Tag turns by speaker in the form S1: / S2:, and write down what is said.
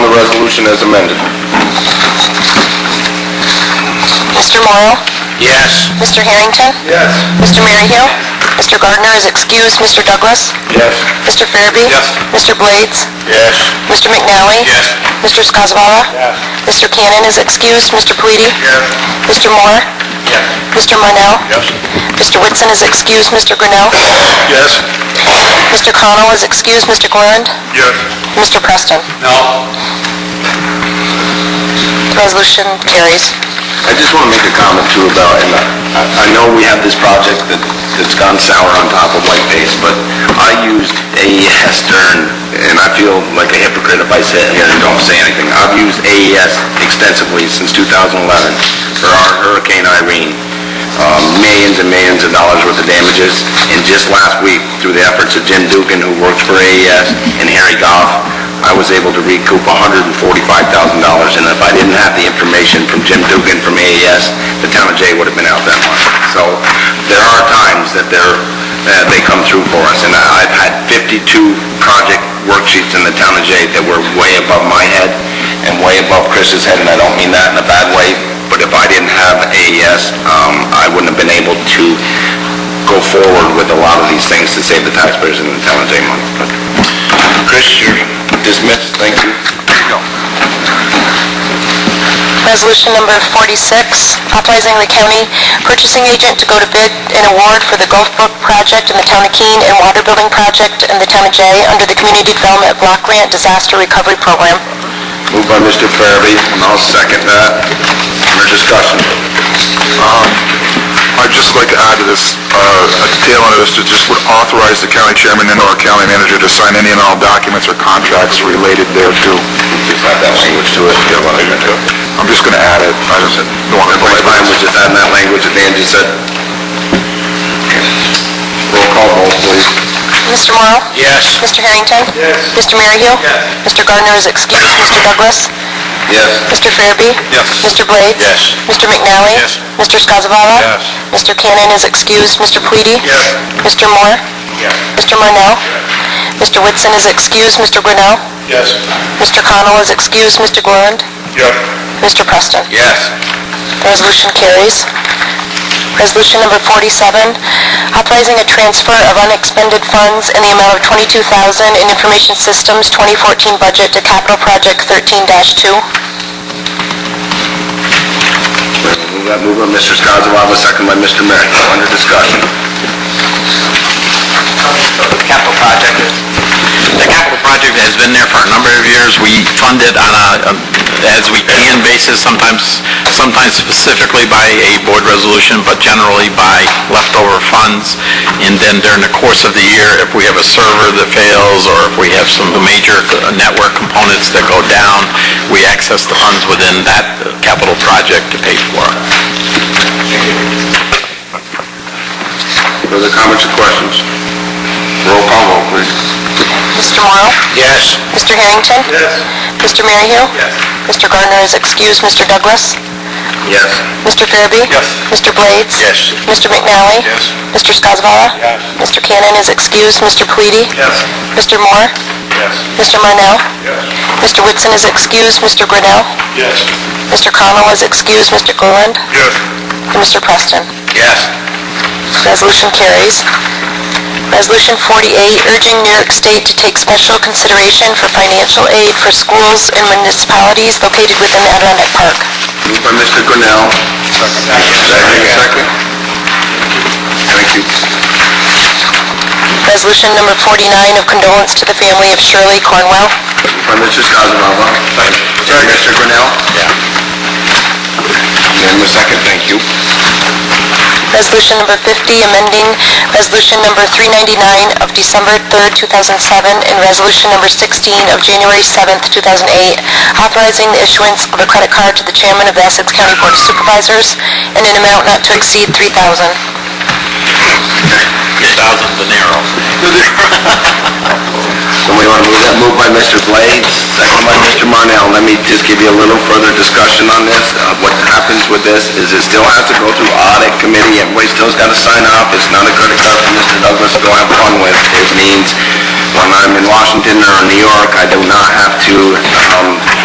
S1: resolution as amended.
S2: Mr. Morrow?
S1: Yes.
S2: Mr. Harrington?
S1: Yes.
S2: Mr. Maryhill? Mr. Gardner is excused. Mr. Douglas?
S1: Yes.
S2: Mr. Farabee?
S1: Yes.
S2: Mr. Blades?
S1: Yes.
S2: Mr. McNally?
S1: Yes.
S2: Mr. Skozavala?
S1: Yes.
S2: Mr. Cannon is excused. Mr. Pleady?
S1: Yes.
S2: Mr. Moore?
S1: Yes.
S2: Mr. Marnell?
S1: Yes.
S2: Mr. Whitson is excused. Mr. Grinnell?
S1: Yes.
S2: Mr. Connell is excused. Mr. Gorland?
S1: Yes.
S2: Mr. Preston?
S1: No.
S2: The resolution carries.
S1: I just want to make a comment too about, and I, I know we have this project that, that's gone sour on top of white paste, but I used AES during, and I feel like a hypocrite if I sit here and don't say anything. I've used AES extensively since 2011 for our Hurricane Irene. Um, millions and millions of dollars worth of damages, and just last week, through the efforts of Jim Dugan, who works for AES, and Harry Goff, I was able to recoup $145,000, and if I didn't have the information from Jim Dugan from AES, the town of Jay would have been out that month. So there are times that they're, that they come through for us, and I- I've had 52 project worksheets in the town of Jay that were way above my head and way above Chris's head, and I don't mean that in a bad way, but if I didn't have AES, um, I wouldn't have been able to go forward with a lot of these things to save the taxpayers in the town of Jay money. But Chris, you're dismissed, thank you.
S2: Resolution number 46, authorizing the county purchasing agent to go to bid an award for the Gulf Brook project in the town of Keene and water building project in the town of Jay under the Community Development Block Grant Disaster Recovery Program.
S1: Moved by Mr. Farabee, and I'll second that. Under discussion.
S3: Um, I'd just like to add to this, uh, a detail on this, to just would authorize the county chairman and/or county manager to sign any and all documents or contracts related thereto.
S1: Just add that language to it. Yeah, well, I didn't do it.
S3: I'm just gonna add it, I just don't want to...
S1: My mind was just adding that language that Dan just said. Roll call vote, please.
S2: Mr. Morrow?
S1: Yes.
S2: Mr. Harrington?
S1: Yes.
S2: Mr. Maryhill?
S1: Yes.
S2: Mr. Gardner is excused. Mr. Douglas?
S1: Yes.
S2: Mr. Farabee?
S1: Yes.
S2: Mr. Blades?
S1: Yes.
S2: Mr. McNally?
S1: Yes.
S2: Mr. Skozavala?
S1: Yes.
S2: Mr. Cannon is excused. Mr. Pleady?
S1: Yes.
S2: Mr. Moore?
S1: Yes.
S2: Mr. Marnell? Mr. Whitson is excused. Mr. Grinnell?
S1: Yes.
S2: Mr. Connell is excused. Mr. Gorland?
S1: Yes.
S2: Mr. Preston?
S1: Yes.
S2: The Resolution carries. Resolution number 47, authorizing a transfer of unexpended funds in the amount of 22000 in Information Systems 2014 budget to Capital Project 13-2.
S1: Move that move by Mr. Skozavala, second by Mr. Merrick. Under discussion.
S4: capital project is, the capital project has been there for a number of years. We fund it on a, a- as we can basis, sometimes, sometimes specifically by a board resolution, but generally by leftover funds. And then during the course of the year, if we have a server that fails, or if we have some major network components that go down, we access the funds within that capital project to pay for it.
S1: Further comments or questions? Roll call vote, please.
S2: Mr. Morrow?
S1: Yes.
S2: Mr. Harrington?
S1: Yes.
S2: Mr. Maryhill?
S1: Yes.
S2: Mr. Gardner is excused. Mr. Douglas?
S1: Yes.
S2: Mr. Farabee?
S1: Yes.
S2: Mr. Blades?
S1: Yes.
S2: Mr. McNally?
S1: Yes.
S2: Mr. Skozavala?
S1: Yes.
S2: Mr. Cannon is excused. Mr. Pleady?
S1: Yes.
S2: Mr. Moore?
S1: Yes.
S2: Mr. Marnell?
S1: Yes.
S2: Mr. Whitson is excused. Mr. Grinnell?
S1: Yes.
S2: Mr. Connell is excused. Mr. Gorland?
S1: Yes.
S2: And Mr. Preston?
S1: Yes.
S2: Resolution carries. Resolution 48, urging New York State to take special consideration for financial aid for schools and municipalities located within the Adirondack Park.
S1: Moved by Mr. Grinnell. Second. Second. Thank you.
S2: Resolution number 49 of condolence to the family of Shirley Cornwell.
S1: Moved by Mr. Skozavala. Second. Mr. Grinnell.
S4: Yeah.
S1: Unanimous second, thank you.
S2: Resolution number 50, amending Resolution number 399 of December 3rd, 2007, and Resolution number 16 of January 7th, 2008, authorizing the issuance of a credit card to the chairman of the Essex County Board of Supervisors in an amount not to exceed 3000
S4: Thousand dinero.
S1: Somebody want to move that? Moved by Mr. Blades, second by Mr. Marnell. Let me just give you a little further discussion on this. Uh, What happens with this is it still has to go through audit committee, everybody still's got to sign off. It's not a credit card for Mr. Douglas to go have fun with. It means when I'm in Washington or New York, I do not have to um,